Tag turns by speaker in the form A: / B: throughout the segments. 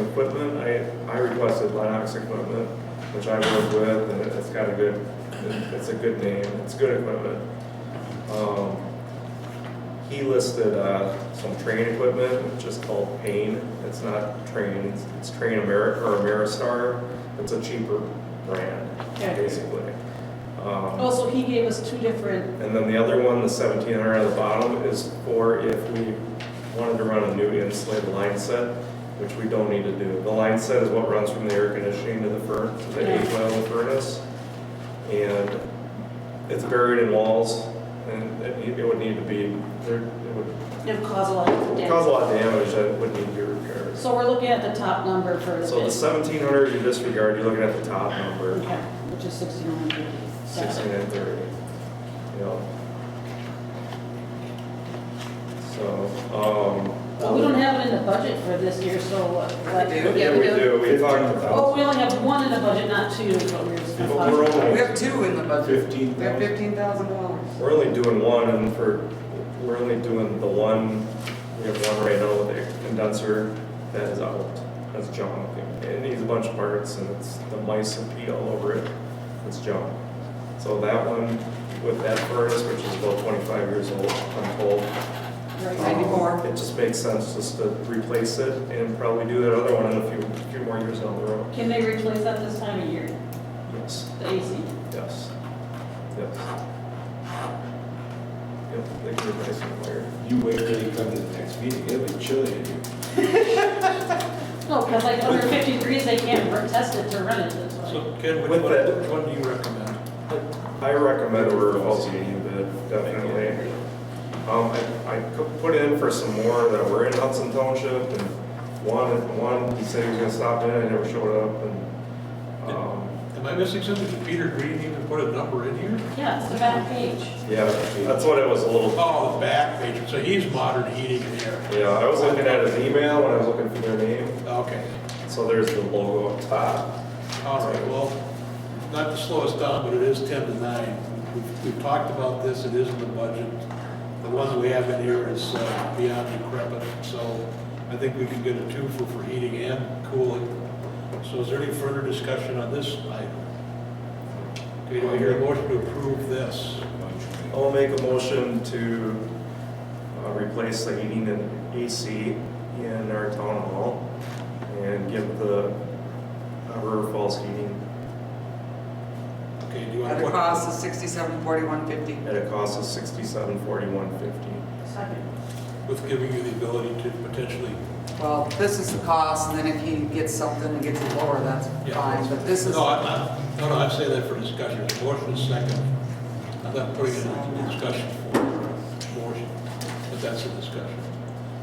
A: equipment, I, I requested Linox equipment, which I work with, and it's got a good, it's a good name, it's good equipment. Um, He listed, uh, some train equipment, which is called Payne, it's not Trains, it's Train Ameri, or Ameristar, it's a cheaper brand,
B: Okay.
A: basically. Um,
B: Also, he gave us two different,
A: and then the other one, the seventeen hundred at the bottom, is for if we wanted to run a new insulated line set, which we don't need to do. The line set is what runs from the air conditioning to the furnace, to the heat oil in the furnace. And it's buried in walls, and it need- it would need to be, there- it would
B: it would cause a lot of
A: cause
B: damage.
A: a lot of damage that would need to be repaired.
B: So we're looking at the top number for the
A: So the
B: bid.
A: seventeen hundred you disregard, you're looking at the top number.
B: Okay, which is sixty-nine hundred.
A: 16 and 30, you know. So, um.
B: Well, we don't have it in the budget for this year, so what? what-
C: We do.
A: Yeah, we do, we talked
B: Oh,
A: about.
B: we only have one in the budget, not two, is what we were just
A: But we're
C: We
A: only,
C: have two in the budget.
D: Fifteen
C: They're
D: thousand.
C: fifteen thousand dollars.
A: we're only doing one and for, we're only doing the one, we have one right now with a condenser that is out. That's junk. It needs a bunch of parts and it's, the mice and pee all over it. It's junk. So that one with that furnace, which is about 25 years old, I'm told,
B: Right.
C: Ninety-four.
A: It just makes sense just to replace it and probably do that other one in a few, few more years down the road.
B: Can they replace that this time of year,
A: Yes,
B: the AC?
A: yes, yes. Yep, they can replace it later.
D: You wait till you come to the next meeting, it'll be chilly in here.
B: No, because like under fifty degrees, they can't re- test it to run it, that's why.
E: So Ken, which
A: With
E: one,
A: that-
E: which one do you recommend?
A: I recommend we're LCD bid, definitely. Um, I, I could put in for some more that were in Hudson Township and one, one, he said he was gonna stop in and never showed up and, um,
E: Am I missing something? Did Peter Green even put a number in here?
B: Yeah, it's the back page.
A: yeah, that's what it was a little
E: Oh, the back page, so he's modern heating and air.
A: Yeah, I was looking at his email when I was looking for their name,
E: Okay,
A: so there's the logo up top.
E: all right, well, not to slow us down, but it is ten to nine. We've- We've talked about this, it is in the budget. The one that we have in here is uh, beyond decrepit, so I think we can get a twofer for heating and cooling. So is there any further discussion on this item? Okay, do I hear a motion to approve this?
A: I'll make a motion to uh, replace the heating and AC in our town hall and give the uh, River Falls Heating
E: Okay, do you want
C: At
E: to?
C: a cost of sixty-seven forty-one fifty.
A: at a cost of sixty-seven forty-one fifty.
B: Second.
E: with giving you the ability to potentially.
C: Well, this is the cost, and then if he gets something and gets it lower, that's
E: yeah.
C: fine, but this is,
E: No, I'm not, no, no, I'm saying that for discussion, the motion is second. I'm not putting it in discussion for motion, but that's a discussion.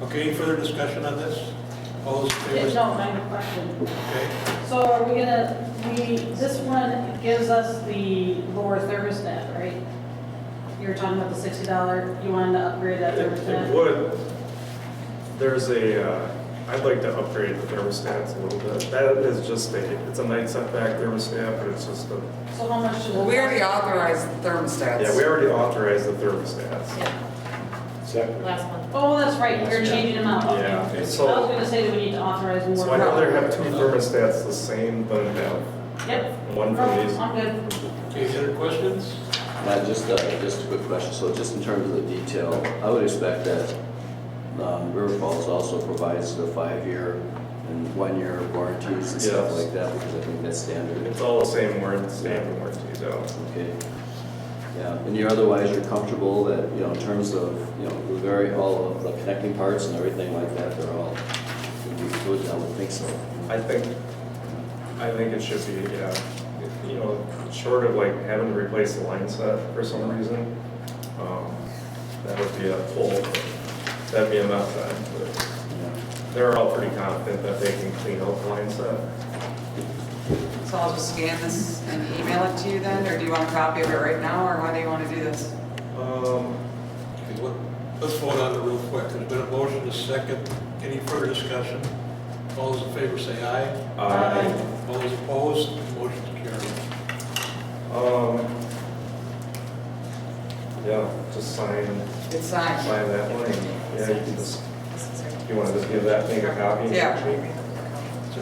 E: Okay, any further discussion on this? All those in
B: Yeah,
E: favor?
B: No, I have a question.
E: Okay,
B: So are we gonna, we, this one gives us the lower thermostat, right? You were talking about the sixty dollar, you wanted to upgrade that
A: It it
B: thermostat?
A: would, there's a, uh, I'd like to upgrade the thermostats a little bit. That is just a, it's a night setback thermostat, but it's just a
B: So how much should it?
C: well, we already authorized the thermostats.
A: Yeah, we already authorized the thermostats.
B: Yeah.
D: Second.
F: last month.
B: Oh, that's right, we are changing them out. okay.
A: Yeah,
B: I was
A: so,
B: gonna say that we need to authorize more.
A: so I'd rather have two thermostats the same than have
B: Yep,
A: one for
B: Nope,
A: these.
B: I'm good.
E: okay, any other questions?
G: Matt, just, uh, just a quick question, so just in terms of the detail, I would expect that um, River Falls also provides the five-year and one-year warranties and stuff
A: Yes.
G: like that, because I think that's standard,
A: It's all the same warranty, same warranties out.
G: okay? Yeah, and you're otherwise, you're comfortable that, you know, in terms of, you know, the very, all of the connecting parts and everything like that, they're all, would be good, I would think so.
A: I think, I think it should be, yeah, you know, short of like having to replace the line set for some reason, um, that would be a full, that'd be a mess then, but
G: Yeah.
A: they're all pretty confident that they can clean out the line set.
C: So I'll just scan this and email it to you then, or do you want a copy of it right now, or how do you want to do this?
A: Um,
E: Okay, what, let's vote on it real quick. There's been a motion, a second. Any further discussion? All those in favor say aye.
A: Aye.
E: All those opposed, motion carried.
A: Um, yeah, just sign,
C: It's signed.
A: sign that one. Yeah, you can just,
F: This is-
A: you wanna just give that thing a copy?
C: Yeah.